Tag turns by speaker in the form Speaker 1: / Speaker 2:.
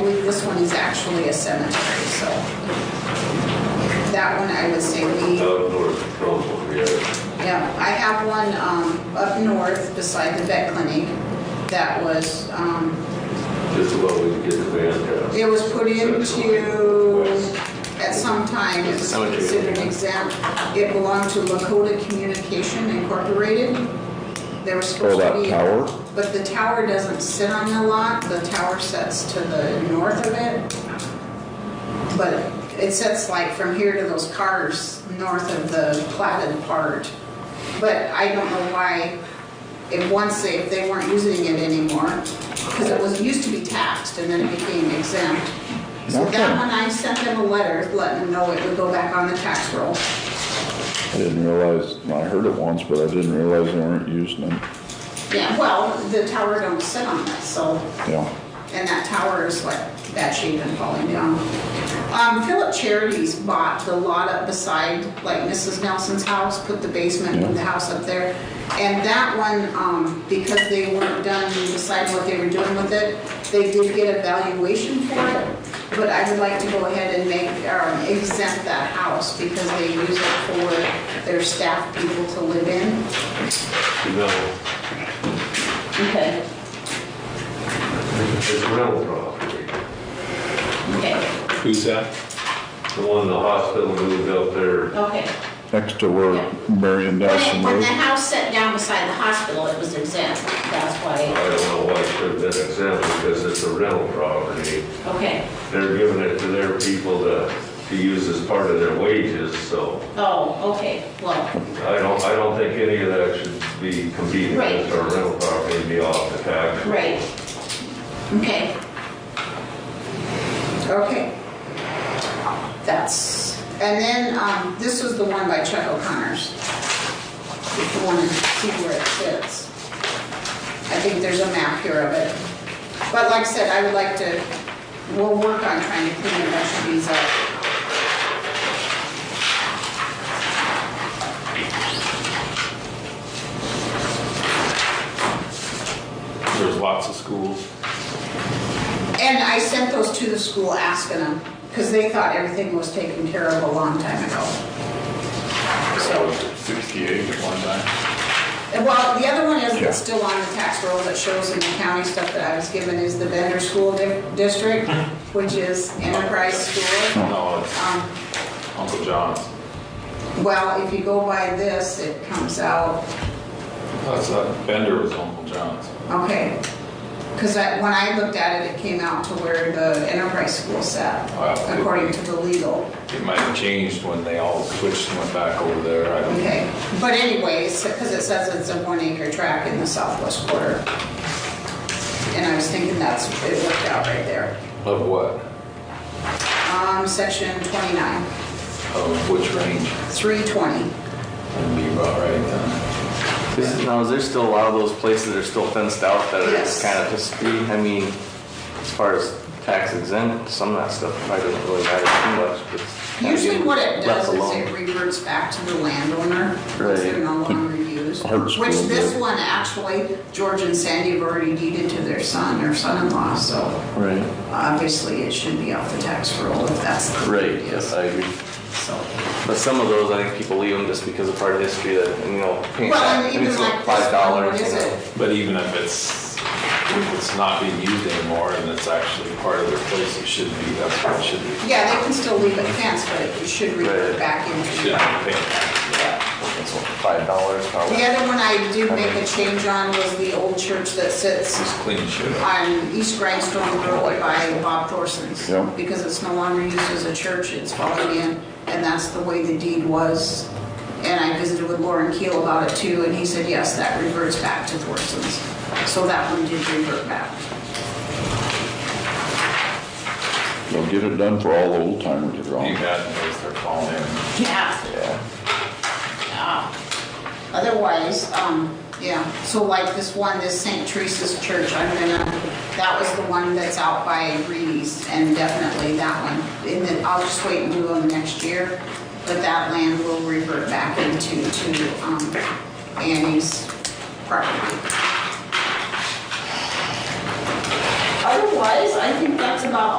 Speaker 1: believe this one is actually a cemetery, so. That one, I would say we,
Speaker 2: Out of North Council, we had
Speaker 1: yeah, I have one, um, up north beside the vet clinic that was, um,
Speaker 2: just about we could get the van down.
Speaker 1: It was put into, at some time, it was
Speaker 3: Cemetery.
Speaker 1: considered exempt. It belonged to Lakota Communication Incorporated. They were supposed to
Speaker 4: that
Speaker 1: be.
Speaker 4: tower?
Speaker 1: But the tower doesn't sit on the lot, the tower sets to the north of it. But it sets like from here to those cars, north of the platted part. But I don't know why, if once they, if they weren't using it anymore, because it was, used to be taxed and then it became exempt. So that
Speaker 4: Okay.
Speaker 1: one, I sent them a letter letting them know it would go back on the tax roll.
Speaker 4: I didn't realize, I heard it once, but I didn't realize they weren't using it.
Speaker 1: Yeah, well, the tower don't sit on that, so,
Speaker 4: Yeah.
Speaker 1: and that tower is like bad shape and falling down. Um, Philip Charities bought the lot up beside, like Mrs. Nelson's house, put the basement of the house up there. And that one, um, because they weren't done deciding what they were doing with it, they did get a valuation for it. But I would like to go ahead and make, um, exempt that house because they use it for their staff people to live in.
Speaker 2: No,
Speaker 1: Okay.
Speaker 2: it's rental property.
Speaker 1: Okay,
Speaker 3: Who's that?
Speaker 2: The one the hospital moved out there,
Speaker 1: okay.
Speaker 4: Next to where Marion Nelson
Speaker 1: When the
Speaker 4: lives.
Speaker 1: house set down beside the hospital, it was exempt, that's why,
Speaker 2: I don't know why it should have been exempt because it's a rental property.
Speaker 1: okay,
Speaker 2: They're giving it to their people to, to use as part of their wages, so
Speaker 1: oh, okay, well,
Speaker 2: I don't, I don't think any of that should be competing
Speaker 1: Right.
Speaker 2: with our rental property and be off the tax.
Speaker 1: great. Okay. Okay. That's, and then, um, this is the one by Chuck O'Connor's. If you wanna see where it sits. I think there's a map here of it. But like I said, I would like to, we'll work on trying to clean a bunch of these up.
Speaker 3: There's lots of schools.
Speaker 1: And I sent those to the school asking them, because they thought everything was taken care of a long time ago. So,
Speaker 3: 68 at one time.
Speaker 1: and well, the other one is,
Speaker 4: Yeah.
Speaker 1: that's still on the tax roll that shows in the county stuff that I was given is the Bender School Di- District, which is Enterprise School.
Speaker 3: No, it's
Speaker 1: Um,
Speaker 3: Uncle John's.
Speaker 1: Well, if you go by this, it comes out,
Speaker 3: That's not, Bender was Uncle John's.
Speaker 1: okay. Because when I looked at it, it came out to where the Enterprise School sat,
Speaker 3: Wow.
Speaker 1: according to the legal.
Speaker 3: It might have changed when they all switched and went back over there. I don't,
Speaker 1: Okay, but anyways, because it says it's a one acre tract in the southwest quarter. And I was thinking that's, it worked out right there.
Speaker 3: of what?
Speaker 1: Um, section 29,
Speaker 3: Of which range?
Speaker 1: 320.
Speaker 3: That'd be about right then.
Speaker 5: Is, now, is there still a lot of those places that are still fenced out that
Speaker 1: Yes.
Speaker 5: are kind of just, I mean, as far as tax exempt, some of that stuff probably doesn't really matter too much, but. it's kinda
Speaker 1: Usually
Speaker 5: getting
Speaker 1: what it
Speaker 5: left
Speaker 1: does is
Speaker 5: alone.
Speaker 1: it reverts back to the landowner, because they're
Speaker 5: Right. Hmm.
Speaker 1: no longer used.
Speaker 4: Hard school,
Speaker 1: Which this
Speaker 4: yeah.
Speaker 1: one actually, George and Sandy have already deeded to their son or son-in-law, so
Speaker 5: Right,
Speaker 1: obviously it should be off the tax roll if that's. the-
Speaker 5: right, yes, I agree.
Speaker 1: So.
Speaker 5: But some of those, I think people leave them just because of part of history that, you know, paying
Speaker 1: Well,
Speaker 5: tax,
Speaker 1: and
Speaker 5: I mean,
Speaker 1: even
Speaker 5: it's
Speaker 1: like this
Speaker 5: like five
Speaker 1: one, what
Speaker 5: dollars.
Speaker 1: is it?
Speaker 3: But even if it's, if it's not being used anymore and it's actually part of their place, it should be, that's what it should be.
Speaker 1: Yeah, they can still leave it fenced, but it should revert
Speaker 5: Right.
Speaker 1: back into.
Speaker 3: Should
Speaker 1: that.
Speaker 3: be paid.
Speaker 5: It's what, five dollars probably.
Speaker 1: The other one I did make a change on was the old church that sits
Speaker 3: Just clean shit up.
Speaker 1: on East Grindstone Road by Bob Thorson's.
Speaker 4: Yeah.
Speaker 1: Because it's no longer used as a church, it's falling in, and that's the way the deed was. And I visited with Lauren Keel about it too, and he said, yes, that reverts back to Thorson's. So that one did revert back.
Speaker 4: They'll get it done for all the old timers that are
Speaker 3: You
Speaker 4: on.
Speaker 3: got, those that are falling in.
Speaker 1: Yeah.
Speaker 5: Yeah.
Speaker 1: Otherwise, um, yeah, so like this one, this St. Teresa's Church, I'm gonna, that was the one that's out by Reedy's, and definitely that one. And then I'll just wait and do them next year, but that land will revert back into, to, um, Annie's property. Otherwise, I think that's about